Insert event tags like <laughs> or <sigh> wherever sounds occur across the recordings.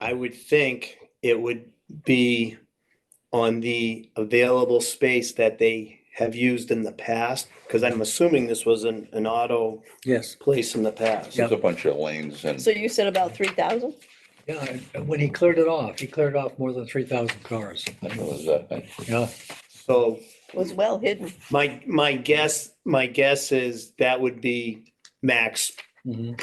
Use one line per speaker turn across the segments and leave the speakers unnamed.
I would think it would be on the available space that they have used in the past, because I'm assuming this was an, an auto
Yes,
place in the past.
Yeah.
There's a bunch of lanes and
So you said about three thousand?
yeah, and when he cleared it off, he cleared off more than three thousand cars.
I don't know, is that thing.
Yeah,
So
Was well hidden.
my, my guess, my guess is that would be max,
mhm.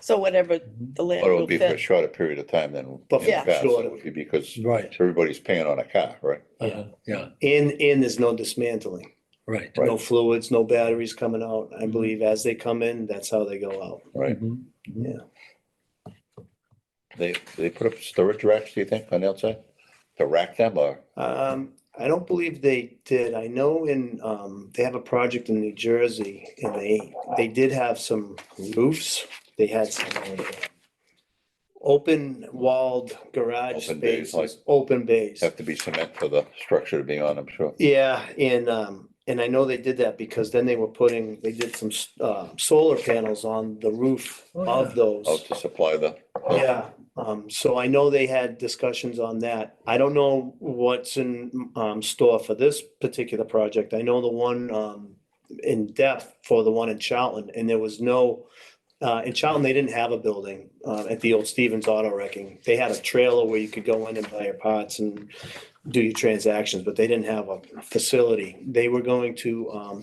So whatever
Mm-hmm.
the
But
land
it would
will
be for a
fit.
shorter period of time than. in the
But
Yeah.
past, it
shorter.
would be Because
right,
everybody's paying on a car, right?
uh-huh, yeah,
and, and there's no dismantling.
right. Mm-hmm.
No fluids, no batteries coming out. I believe as they come in, that's how they go out.
Right.
Mhm.
They, they put up storage racks, do you think, on the outside? To rack them or,
Um, I don't believe they did. I know in, um, they have a project in New Jersey and they, they did have some roofs. They had some um, open walled garage
Open bays, like-
spaces, open bays.
have to be cement for the structure to be on, I'm sure.
Yeah, and, um, and I know they did that because then they were putting, they did some, s- uh, solar panels on the roof
Oh,
of
yeah.
those.
Oh, to supply the.
Yeah, um, so I know they had discussions on that. I don't know what's in, um, store for this particular project. I know the one, um, in depth for the one in Charlton, and there was no, uh, in Charlton, they didn't have a building, uh, at the old Stevens Auto Wrecking. They had a trailer where you could go in and buy your parts and do your transactions, but they didn't have a facility. They were going to, um,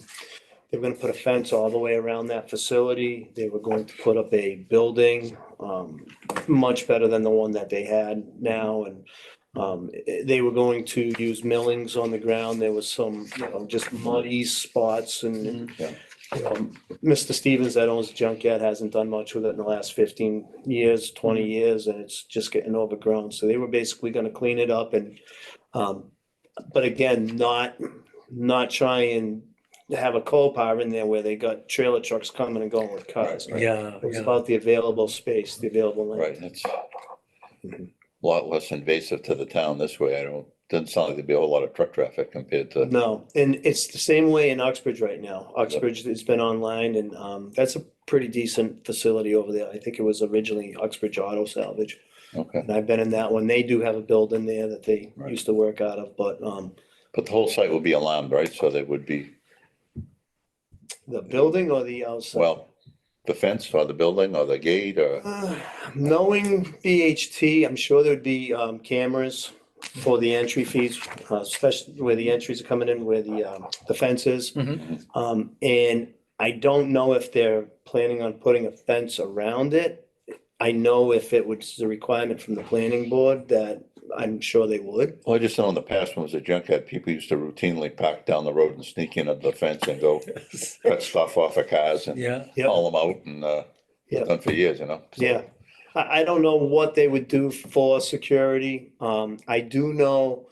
they were gonna put a fence all the way around that facility. They were going to put up a building, um, much better than the one that they had now and um, eh, they were going to use millings on the ground. There was some, you know, just muddy spots and
Yeah.
um, Mr. Stevens that owns Junkyard hasn't done much with it in the last fifteen years, twenty
Mm-hmm.
years, and it's just getting overgrown. So they were basically gonna clean it up and um, but again, not, not try and have a coal power in there where they got trailer trucks coming and going with cars.
Right.
Yeah,
It was
yeah,
about the available space, the available land.
Right, it's a
Mhm.
lot less invasive to the town this way. I don't, doesn't sound like there'd be a whole lot of truck traffic compared to.
No, and it's the same way in Uxbridge right now. Uxbridge has been online and um, that's a pretty decent facility over there. I think it was originally Uxbridge Auto Salvage.
Okay,
And I've been in that one. They do have a building there that they
Right.
used to work out of, but um,
but the whole site would be alarmed, right? So they would be,
the building or the outside?
well, the fence or the building or the gate or,
Uh, Knowing BHT, I'm sure there'd be um, cameras for the entry fees, uh, especially where the entries are coming in, where the um, the fence is.
Mhm.
Um, And I don't know if they're planning on putting a fence around it. I know if it was a requirement from the planning board that I'm sure they would.
well, I just know in the past when it was a junkyard, people used to routinely park down the road and sneak in under the fence and go cut stuff off of cars and
yeah,
Yep.
haul them out and, uh,
Yep.
done for years, you know? So-
Yeah, I, I don't know what they would do for security. Um, I do know,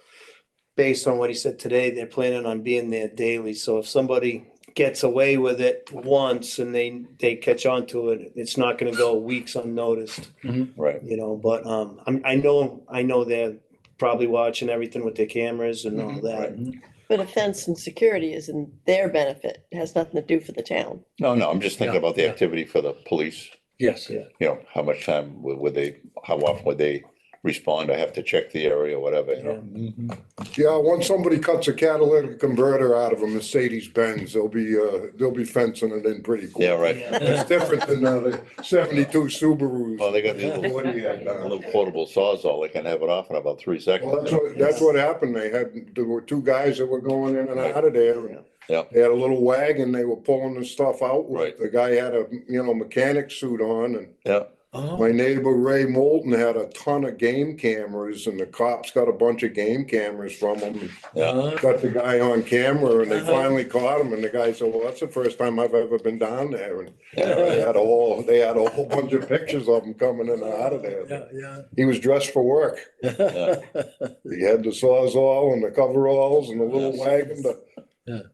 based on what he said today, they're planning on being there daily, so if somebody gets away with it once and they, they catch on to it, it's not gonna go weeks unnoticed,
Right,
you know, but, um, I'm, I know, I know they're probably watching everything with their cameras and all
Mhm,
that.
But a fence and security is in their benefit. It has nothing to do for the town.
no, no, I'm just thinking
Yeah,
about the
yeah.
activity for the police.
yes,
Yeah.
you know, how much time would, would they, how often would they respond? I have to check the area or whatever, you know?
Mhm.
Yeah, once somebody cuts a catalytic converter out of a Mercedes Benz, they'll be, uh, they'll be fencing it in pretty quick.
Yeah, right.
Yeah.
It's different than uh, the seventy-two
Well,
Subarus.
they got these little
What do you have now?
little portable sawzall. They can have it off in about three
Well, that's
seconds.
what, that's what happened. They had, there were two guys that were going in and out of there. and
Yeah.
They had a little wagon, they were pulling the stuff out. with-
Right.
The guy had a, you know, mechanic suit on and
Yeah,
Oh,
My neighbor Ray Moulton had a ton of game cameras and the cops got a bunch of game cameras from him.
yeah.
Uh,
Got the guy on camera and they
Uh-huh.
finally caught him and the guy said, well, that's the first time I've ever been down there. And
<laughs>
<laughs>
yeah.
they had a whole, they had a whole bunch of pictures of him coming in and out of there.
Yeah, yeah.
He was dressed for work. He had the sawzall and the coveralls and the little
Yes.
wagon. to-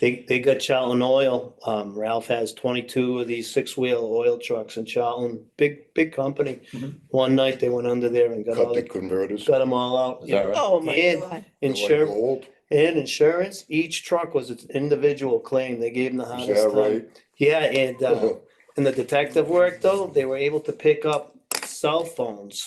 They, they got Charlton Oil. Um, Ralph has twenty-two of these six-wheel oil trucks in Charlton, big, big company.
Mhm.
One night they went under there and got all
Mm-hmm. Cut the
the,
converters.
got them all out.
Is that right?
Oh, my
And
God.
Insurance,
Gold.
and insurance, each truck was its individual claim. They gave them the
Is
hardest
that
time.
right?
Yeah,
<laughs>
and, uh, in the detective work though, they were able to pick up cell phones